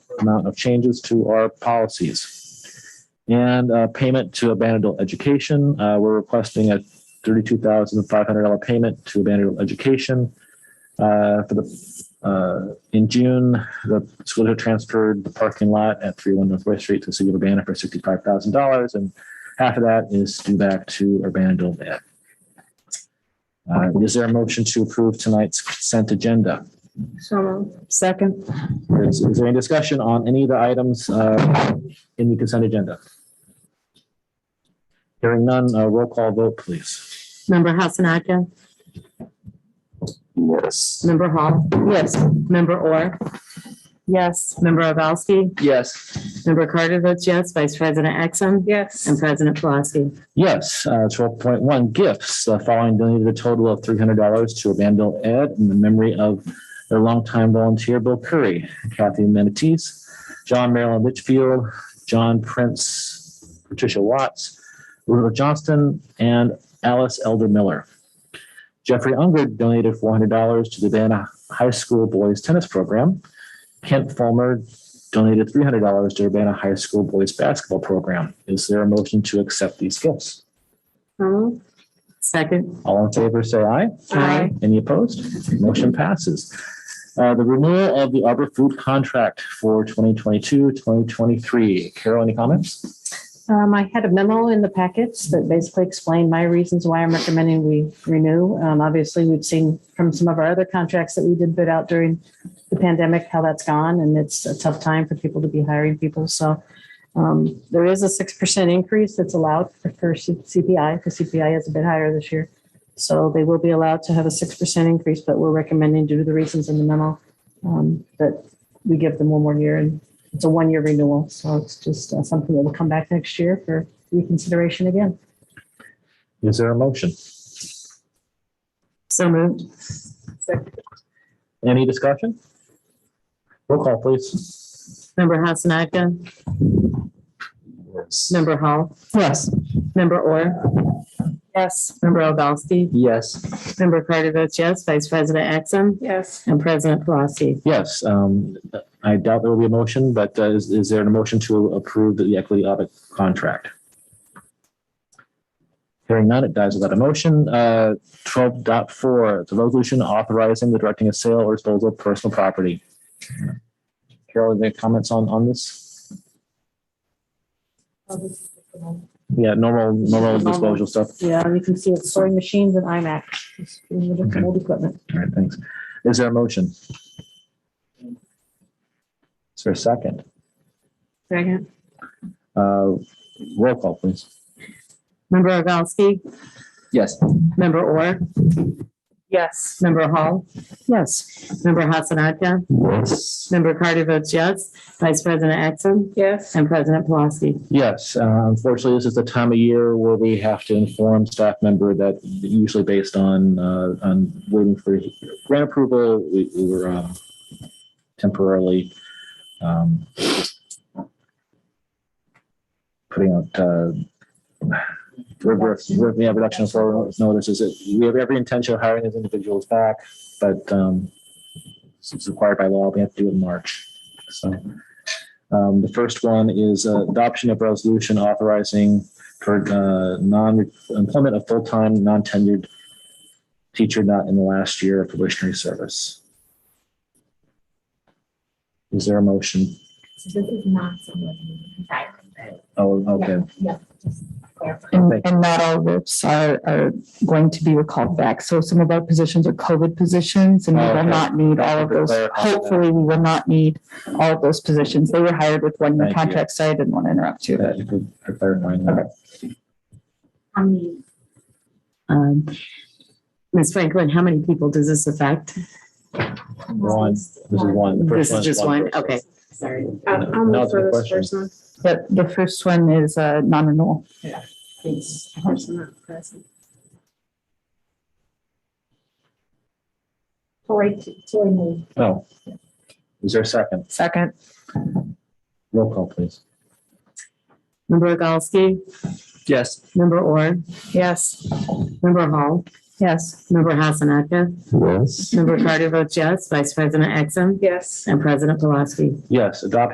amount of changes to our policies. And uh, payment to abandoned adult education, uh, we're requesting a thirty-two thousand five hundred dollar payment to abandoned adult education. Uh, For the, uh, in June, the school had transferred the parking lot at three oh one Northwest Street to the city of Urbana for sixty-five thousand dollars, and half of that is due back to Urbana Adult Ed. Uh, Is there a motion to approve tonight's consent agenda? So moved. Second. Is is there any discussion on any of the items uh, in the consent agenda? Hearing none, uh, roll call vote, please. Member Hassan Akka? Yes. Member Hall? Yes. Member Orr? Yes. Member Ovalsky? Yes. Member Carter votes yes. Vice President Exum? Yes. And President Plasky. Yes, uh, twelve point one gifts, the following donated a total of three hundred dollars to Abandon Ed in the memory of their longtime volunteer Bill Curry, Kathy Manatees, John Marilyn Litchfield, John Prince, Patricia Watts, Rudolph Johnston, and Alice Elder Miller. Jeffrey Unger donated four hundred dollars to the Urbana High School Boys Tennis Program. Kent Fulmer donated three hundred dollars to Urbana High School Boys Basketball Program. Is there a motion to accept these gifts? So moved. Second. All in favor, say aye. Aye. Any opposed? Motion passes. Uh, the renewal of the Arbor Food Contract for 2022, 2023. Carol, any comments? Um, I had a memo in the packets that basically explained my reasons why I'm recommending we renew. Um, obviously, we've seen from some of our other contracts that we did bid out during the pandemic, how that's gone, and it's a tough time for people to be hiring people, so. Um, there is a six percent increase that's allowed for for C- CPI, because CPI is a bit higher this year. So they will be allowed to have a six percent increase, but we're recommending due to the reasons in the memo, um, that we give them one more year and it's a one-year renewal, so it's just uh, something that will come back next year for reconsideration again. Is there a motion? So moved. Any discussion? Roll call, please. Member Hassan Akka? Member Hall? Yes. Member Orr? Yes. Member Ovalsky? Yes. Member Carter votes yes. Vice President Exum? Yes. And President Plasky. Yes, um, I doubt there will be a motion, but uh, is, is there a motion to approve the equity audit contract? Hearing none, it dies without a motion. Uh, twelve dot four, the resolution authorizing the directing of sale or disposal of personal property. Carol, any comments on, on this? Yeah, normal, normal disposal stuff. Yeah, you can see it's sewing machines and iMac, It's in the different old equipment. All right, thanks. Is there a motion? Is there a second? Second. Uh, roll call, please. Member Ovalsky? Yes. Member Orr? Yes. Member Hall? Yes, Member Hassan Akka? Yes. Member Carter votes yes. Vice President Exum? Yes. And President Plasky. Yes, uh, unfortunately, this is the time of year where we have to inform staff member that usually based on, uh, on waiting for grant approval, we we were um, temporarily um, putting out uh, river- river- yeah, reduction of forward notices. We have every intention of hiring these individuals back, but um, it's required by law. We have to do it in March. So um, the first one is uh, adoption of resolution authorizing for uh, non-employment of full-time, non-tenured teacher not in the last year of probationary service. Is there a motion? This is not someone who's retiring. Oh, okay. Yeah, just clarify. Thank And, and not all RIPs are, are going to be recalled back. So some of our positions are COVID positions and we Oh, Okay. will not need all of those. Clarify that. Hopefully, we will not need all of those positions. They were hired with one year Thank you. contracts. so I didn't want to interrupt you. That you could prepare in mind now. How many Um, Ms. Franklin, how many people does this affect? One, this is one. The first This is just one, person. okay. Sorry. I'll I'll Now move to the for this question. person. But the first one is uh non-renewal. Please. Person not present. Tori, Tori moved. Oh. Is there a second? Second, Roll call, please. Member Ogalski? Yes. Member Orr? yes, Member Hall? yes. Member Hassan Akka? Yes. Member Carter votes yes. Vice President Exum? Yes. And President Pulaski. Yes, adoption